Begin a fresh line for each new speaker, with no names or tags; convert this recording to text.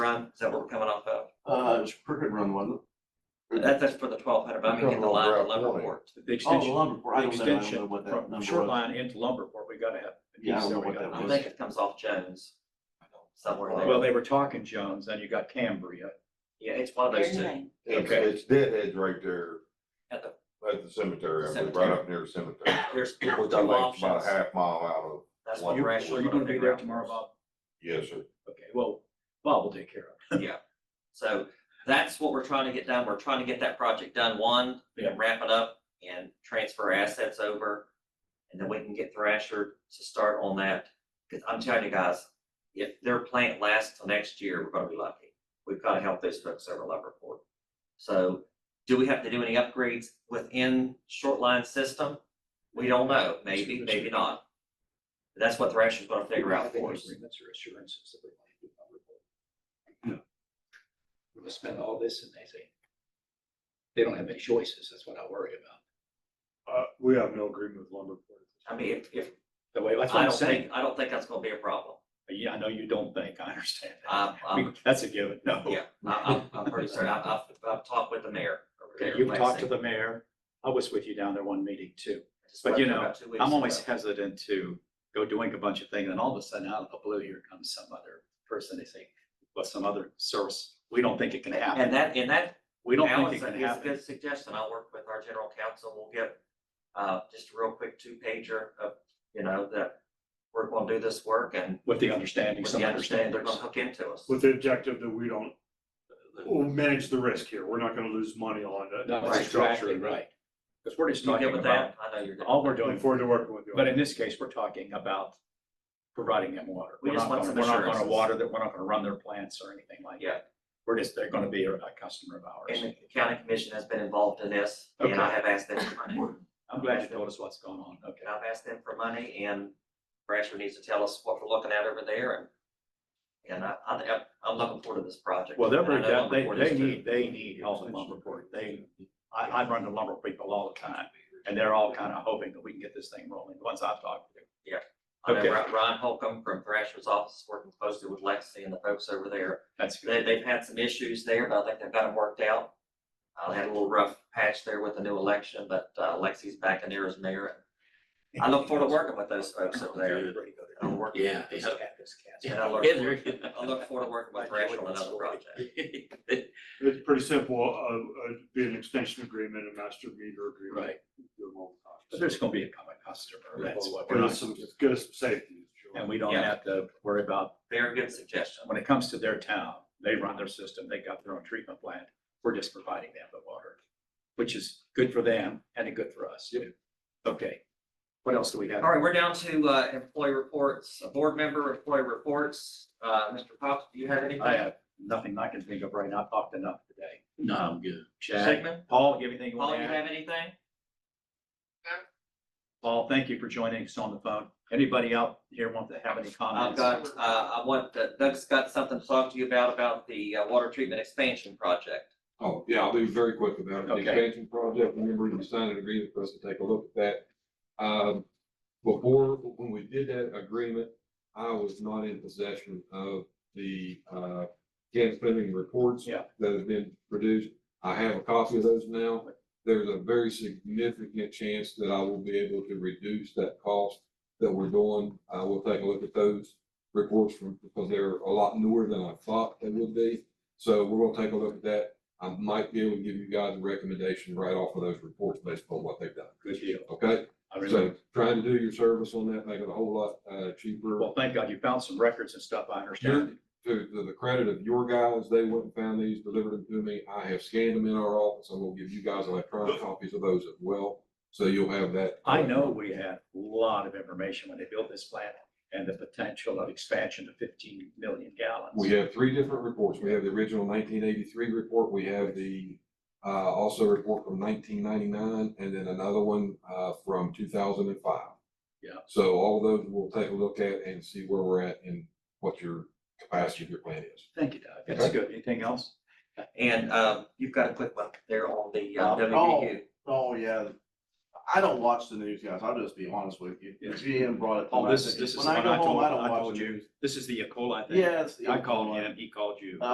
time, is that what we're coming off of?
Uh, it's Crooked Run, wasn't it?
That, that's for the twelve hundred, but I mean, in the line of Leavenworth.
The
Oh, the
extension,
lumber, port. I
the
don't know, I don't know
extension
what that
from
number
short
was.
line into Lumberport, we gotta have. a
Yeah, I don't know
piece there we
what
gotta
that
I
do.
was.
think it comes off Jones, somewhere
Well,
there.
they were talking Jones, then you got Cambria.
Yeah, it's one of those two.
Very
It's,
Okay.
it's deadheads right there
At the-
at the cemetery, I mean, right up near the cemetery.
There's two
Which I like
options.
about a half mile out of,
That's
Well,
what
You-
we're
So
actually.
you're gonna be there tomorrow,
about.
Bob?
yes, sir.
Okay, well, Bob will take care of
So that's what we're trying to get done. We're trying to get that project done, one,
Yeah.
and wrap it up and transfer assets over. And then we can get Thrasher to start on that. Cause I'm telling you guys, if their plant lasts till next year, we're gonna be lucky. We've gotta help those folks over at Leverport. So do we have to do any upgrades within short line system? We don't know. Maybe, maybe not. That's what Thrasher's gonna
it.
figure out for us.
Agreements or assurances that we want to do on report. We're gonna spend all this and they say, they don't have any choices, that's what I worry about.
Uh, we have no agreement with lumber.
I mean, if, if,
The way, that's what
I
I'm
don't
saying.
think, I don't think that's gonna be a problem.
Yeah, I know you don't think, I understand
Um,
that. We- That's a given, no.
Oh, Yeah, I, I'm, I'm pretty certain. I've, I've, I've talked with the mayor over there.
You've talked to the mayor, I was with you down there one meeting too. but you know, I'm always hesitant to go doing a bunch of things and all of a sudden out of the blue, here comes some other person, they say, well, some other source, we don't think it can happen.
And that, and that,
We don't think
Alan,
it
is
can
a
happen.
good suggestion. I'll work with our general counsel. We'll get, uh, just a real quick two pager of, you know, that we're gonna do this work and
With the understanding,
with
some
the understanding they're
understanders.
gonna hook into us.
With the objective that we don't, we'll manage the risk here. We're not gonna lose money on it.
No,
Right.
that's exactly right. Because we're just
You
talking
good with
about,
that? I know you're good.
all we're
Looking
doing,
forward to working with you.
but in this case, we're talking about providing them water.
We
We're
just
not
want
gonna-
some
We're not gonna
assurances.
water that, we're not gonna run their plants or anything like
Yeah.
that. We're just, they're gonna be a a customer of
And
ours.
the county commission has been involved in this and I
Okay.
have asked them for money.
I'm glad you told us what's going on, okay.
And I've asked them for money and Brasher needs to tell us what we're looking at over there and and I, I, I'm- I'm looking forward to this project.
Well, they're
And I
very,
know
down-
Lumber
they,
Board
they
is too.
need, they need help in Lumberport. They, I, I run to lumber people all the time, and they're all kind of hoping that we can get this thing rolling, the ones I've talked to.
I know
Okay.
Ri- Ron Holcomb from Thrasher's office is working closely with Lexi and the folks over there.
That's
They,
good.
they've had some issues there, but I think they've got them worked out. Uh, they had a little rough patch there with the new election, but uh, Lexi's back in there as mayor. I look forward to working with those folks over there. I'll work-
Yeah.
and I look forward- I look forward to working with Thrasher on another project.
It's pretty simple, uh, uh, be an extension agreement, a master meter agreement.
Right,
Do them all the
but
time.
there's gonna be a common customer, that's what we're
Get
not,
us some, get us some safety.
and we don't
Yeah.
have to worry about,
Very good suggestion.
when it comes to their town, they run their system, they got their own treatment plant. We're just providing them the water, which is good for them and good for us. too. Okay. What else do we have?
All right, we're down to uh, employee reports, uh, board member employee reports. Uh, Mr. Pops, do you have anything?
I have nothing I can think of right now. I've talked enough today.
No, I'm good.
Chad,
Sigmund,
Paul, you have anything you
Paul,
want
you
to add?
have anything?
Paul, thank you for joining us on the phone. Anybody out here want to have any
I've
comments?
got, uh, I want, uh, Doug's got something to talk to you about, about the uh, water treatment expansion project.
Oh, yeah, I'll be very quick about it. The
Okay.
expansion project, remember you signed an agreement for us to take a look at that. Um, before, when we did that agreement, I was not in possession of the, uh, can spending reports.
Yeah.
That have been produced. I have a copy of those now. There's a very significant chance that I will be able to reduce that cost that we're doing. Uh, we'll take a look at those reports from, because they're a lot newer than I thought they would be. So we're gonna take a look at that. I might be able to give you guys a recommendation right off of those reports based on what they've done,
Good deal.
okay?
I really,
So trying to do your service on that, make it a whole lot, uh, cheaper.
well, thank God you found some records and stuff. I understand.
To, to the credit of your guys, they went and found these, delivered them to me. I have scanned them in our office. I will give you guys electronic copies of those as well. So you'll have that.
I know we had a lot of information when they built this plant and the potential of expansion to fifteen million gallons.
We have three different reports. We have the original nineteen eighty-three report, we have the, uh, also report from nineteen ninety-nine, and then another one, uh, from two thousand and five.
Yeah.
So all of those we'll take a look at and see where we're at and what your capacity of your plan is.
Thank you, Doug. That's
Okay.
good. Anything else?
And um, you've got a quick one there on the uh,
Um,
WVU.
Oh, yeah. I don't watch the news, guys. I'll just be honest with you.
Yeah.
GM brought it. to
Oh,
my
this is-
attention.
this is
When I
one
go
I
home,
told-
don't
I
watch
told
the
you.
news.
This is the E. coli
Yeah, it's the
I
E.
called
coli.
him, he called you.